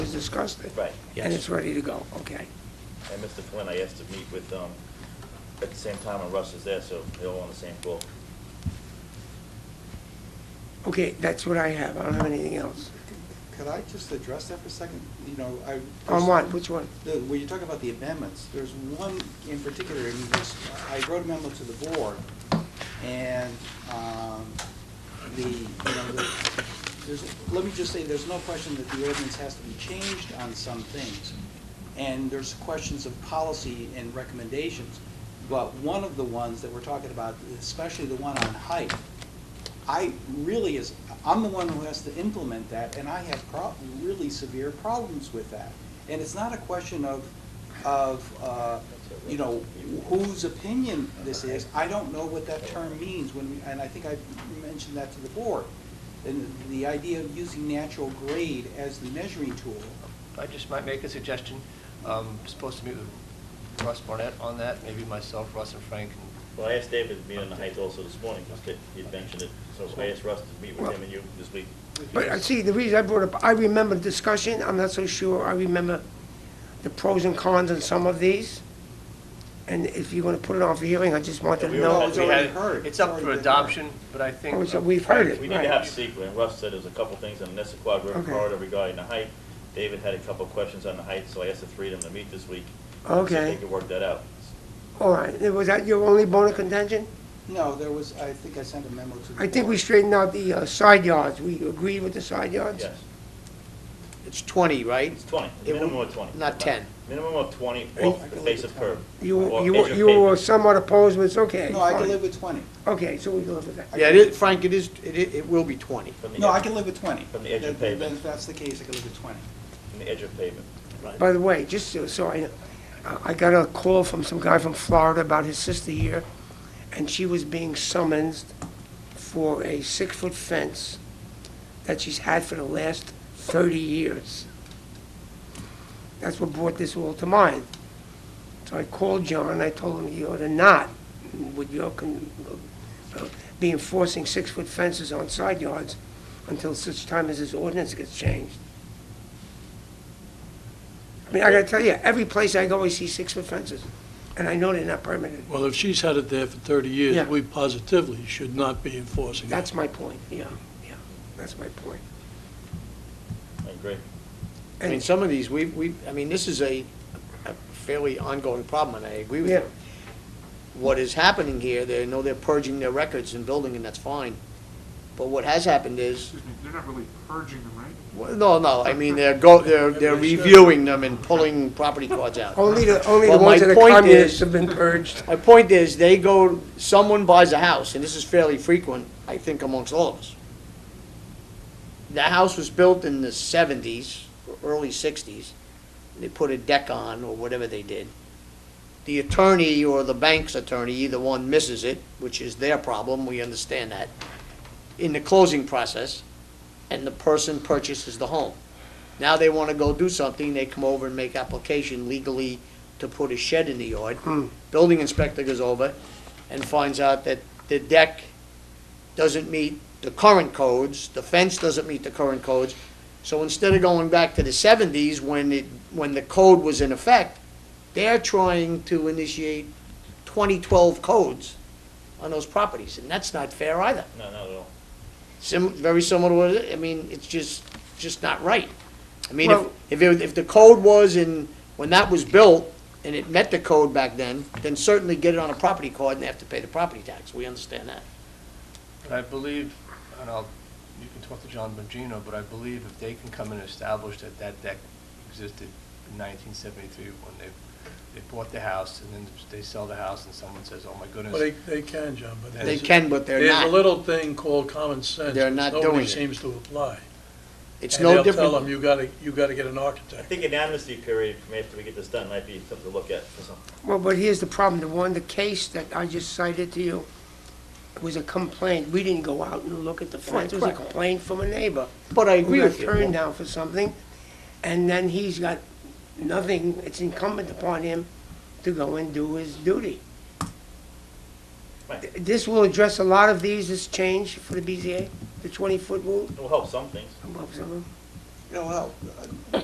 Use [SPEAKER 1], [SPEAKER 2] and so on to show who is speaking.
[SPEAKER 1] discussed it.
[SPEAKER 2] Right.
[SPEAKER 1] And
[SPEAKER 3] Yes.
[SPEAKER 1] it's ready to go, okay.
[SPEAKER 2] And Mr. Flynn, I asked to meet with, um, at the same time, and Russ is there, so they're all on the same call.
[SPEAKER 1] Okay, that's what I have, I don't have anything else.
[SPEAKER 4] Could I just address that for a second? You know, I.
[SPEAKER 1] On what, which one?
[SPEAKER 4] The, when you talk about the amendments, there's one in particular, in which I wrote a memo to the board, and, um, the, you know, the, there's, let me just say, there's no question that the ordinance has to be changed on some things. And there's questions of policy and recommendations, but one of the ones that we're talking about, especially the one on height, I really is, I'm the one who has to implement that, and I have prob, really severe problems with that. And it's not a question of, of, uh, you know, whose opinion this is. I don't know what that term means when, we- and I think I mentioned that to the board. And the idea of using natural grade as the measuring tool,
[SPEAKER 5] I just might make a suggestion. Um, Supposed to meet with Russ Barnett on that, maybe myself, Russ and Frank. and-
[SPEAKER 2] Well, I asked David to meet on the Heights also this morning, because he'd mentioned it, so I asked Russ to meet with him and you this week.
[SPEAKER 1] But I see, the reason I brought up, I remember the discussion, I'm not so sure, I remember the pros and cons on some of these. And if you're gonna put it on for hearing, I just wanted to
[SPEAKER 2] We
[SPEAKER 1] know.
[SPEAKER 4] were- oh, it's
[SPEAKER 5] We
[SPEAKER 4] already
[SPEAKER 5] had-
[SPEAKER 4] heard.
[SPEAKER 5] It's up
[SPEAKER 4] It's
[SPEAKER 5] for
[SPEAKER 4] already been
[SPEAKER 5] adoption, but I think.
[SPEAKER 1] Oh, so we've heard it.
[SPEAKER 2] We need to have secret, and Russ said there's a couple things on the Nessaquad River
[SPEAKER 1] Okay.
[SPEAKER 2] corridor regarding the height. David had a couple questions on the height, so I asked the three of them to meet this week. and See if
[SPEAKER 1] Okay.
[SPEAKER 2] they could work that out.
[SPEAKER 1] All right, was that your only bone of contention?
[SPEAKER 4] no, there was, I think I sent a memo to the board.
[SPEAKER 1] I think we straightened out the uh, side yards, we agreed with the side yards?
[SPEAKER 2] Yes,
[SPEAKER 6] It's 20, right?
[SPEAKER 2] it's twenty,
[SPEAKER 6] It will-
[SPEAKER 2] minimum of twenty.
[SPEAKER 6] Not 10.
[SPEAKER 2] Minimum of twenty off the face of curb.
[SPEAKER 1] You,
[SPEAKER 2] or edge
[SPEAKER 1] you,
[SPEAKER 2] of
[SPEAKER 1] you were
[SPEAKER 2] pavement.
[SPEAKER 1] somewhat opposed, but it's okay.
[SPEAKER 4] No, I can
[SPEAKER 1] fine.
[SPEAKER 4] live with twenty.
[SPEAKER 1] Okay, so we can live with that.
[SPEAKER 6] Yeah, it is, Frank, it is, it, i- it will be 20.
[SPEAKER 2] From the
[SPEAKER 4] No, I
[SPEAKER 2] edge-
[SPEAKER 4] can live with twenty.
[SPEAKER 2] From the edge of
[SPEAKER 4] Then- then
[SPEAKER 2] pavement.
[SPEAKER 4] If that's the case, I can live with twenty.
[SPEAKER 2] From the edge of pavement.
[SPEAKER 1] By the way, just so- so I, I got a call from some guy from Florida about his sister here, and she was being summoned for a six-foot fence that she's had for the last 30 years. That's what brought this all to mind. So I called John, and I told him you ought to not, with your, con- uh, be enforcing six-foot fences on side yards until such time as this ordinance gets changed. I mean, I gotta tell you, every place I go, I see six-foot fences, and I know they're not permanent.
[SPEAKER 7] Well, if she's had it there for 30
[SPEAKER 1] Yeah.
[SPEAKER 7] years, we positively should not be enforcing it.
[SPEAKER 1] That's my point, yeah, yeah, that's my point.
[SPEAKER 2] I agree.
[SPEAKER 6] I mean,
[SPEAKER 1] And-
[SPEAKER 6] some of these, we, we, I mean, this is a a fairly ongoing problem, and I agree with
[SPEAKER 1] Yeah.
[SPEAKER 6] you. What is happening here, they know they're purging their records and building, and that's fine. But what has happened is,
[SPEAKER 8] Excuse me, they're not really purging them, right?
[SPEAKER 6] well, no, no, I mean, they're go, they're, they're reviewing them and pulling property cards out.
[SPEAKER 1] Only the, only the
[SPEAKER 6] Well,
[SPEAKER 1] ones
[SPEAKER 6] my
[SPEAKER 1] that the
[SPEAKER 6] point
[SPEAKER 1] communists
[SPEAKER 6] is-
[SPEAKER 1] have been purged.
[SPEAKER 6] My point is, they go, someone buys a house, and this is fairly frequent, I think amongst all of us. The house was built in the seventies, early sixties, they put a deck on, or whatever they did. The attorney or the bank's attorney, either one misses it, which is their problem, we understand that, in the closing process, and the person purchases the home. Now they wanna go do something, they come over and make application legally to put a shed in the yard. Building inspector goes over and finds out that the deck doesn't meet the current codes, the fence doesn't meet the current codes. So instead of going back to the seventies when it, when the code was in effect, they're trying to initiate twenty-twelve codes on those properties, and that's not fair either.
[SPEAKER 2] No, not at all.
[SPEAKER 6] Sim, very similar to what, it- I mean, it's just, just not right. I mean, if,
[SPEAKER 1] Well-
[SPEAKER 6] if, it- if the code was in, when that was built, and it met the code back then, then certainly get it on a property card and they have to pay the property tax, we understand that.
[SPEAKER 5] But I believe, and I'll, you can talk to John Bongino, but I believe if they can come and establish that that deck existed in 1973 when they, they bought the house, and then they sell the house, and someone says, oh my
[SPEAKER 7] Well, they,
[SPEAKER 5] goodness.
[SPEAKER 7] they can, John, but.
[SPEAKER 5] They
[SPEAKER 7] there's-
[SPEAKER 6] can, but they're
[SPEAKER 7] There's
[SPEAKER 6] not.
[SPEAKER 7] a little thing called common sense.
[SPEAKER 6] They're
[SPEAKER 7] which
[SPEAKER 6] not doing
[SPEAKER 7] Nobody
[SPEAKER 6] it.
[SPEAKER 7] seems to apply.
[SPEAKER 6] It's no
[SPEAKER 7] And they'll tell them,
[SPEAKER 6] different,
[SPEAKER 7] you gotta, you gotta get an
[SPEAKER 2] I
[SPEAKER 7] architect.
[SPEAKER 2] think an amnesty period from after we get this done might be something to look at for some.
[SPEAKER 1] Well, but here's the problem, the one, the case that I just cited to you was a complaint. We didn't go out and look at the fence, it was a
[SPEAKER 6] Right, correct.
[SPEAKER 1] complaint from a neighbor.
[SPEAKER 6] but I
[SPEAKER 1] We
[SPEAKER 6] agree
[SPEAKER 1] got
[SPEAKER 6] with
[SPEAKER 1] turned
[SPEAKER 6] you.
[SPEAKER 1] down for something, and then he's got nothing, it's incumbent upon him to go and do his duty.
[SPEAKER 2] Right.
[SPEAKER 1] This will address a lot of these, this change for the BZA, the 20-foot rule.
[SPEAKER 2] It will help some things.
[SPEAKER 1] Well, some of them.
[SPEAKER 4] You know, well,